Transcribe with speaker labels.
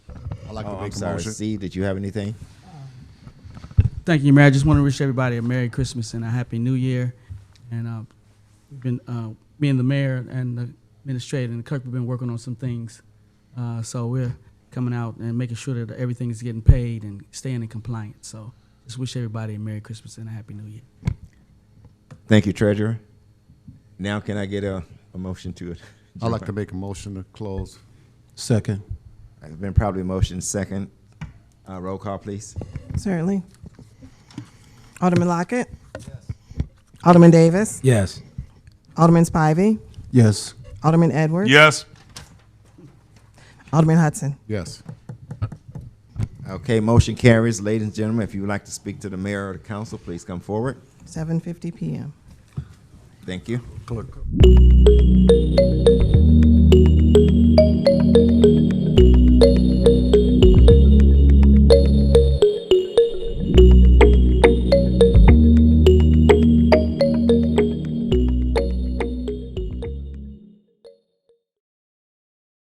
Speaker 1: I'd like
Speaker 2: Oh,
Speaker 1: to
Speaker 2: I'm
Speaker 1: make a
Speaker 2: sorry.
Speaker 1: motion.
Speaker 2: See, did you have anything?
Speaker 3: Thank you, Mayor. I just want to wish everybody a Merry Christmas and a Happy New Year. And uh, we've been, uh, me and the mayor and the administrator and the clerk, we've been working on some things. Uh, so we're coming out and making sure that everything is getting paid and staying in compliance. So just wish everybody a Merry Christmas and a Happy New Year.
Speaker 2: Thank you, Treasurer. Now can I get a, a motion to it?
Speaker 1: I'd like to make a motion to close.
Speaker 4: Second.
Speaker 2: It's been probably motion second. Uh, roll call, please.
Speaker 5: Certainly. Alderman Lockett. Alderman Davis.
Speaker 4: Yes.
Speaker 5: Alderman Spivey.
Speaker 4: Yes.
Speaker 5: Alderman Edwards.
Speaker 6: Yes.
Speaker 5: Alderman Hudson.
Speaker 1: Yes.
Speaker 2: Okay, motion carries. Ladies and gentlemen, if you would like to speak to the mayor or the council, please come forward.
Speaker 5: 7:50 p.m.
Speaker 2: Thank you.
Speaker 1: Clerk.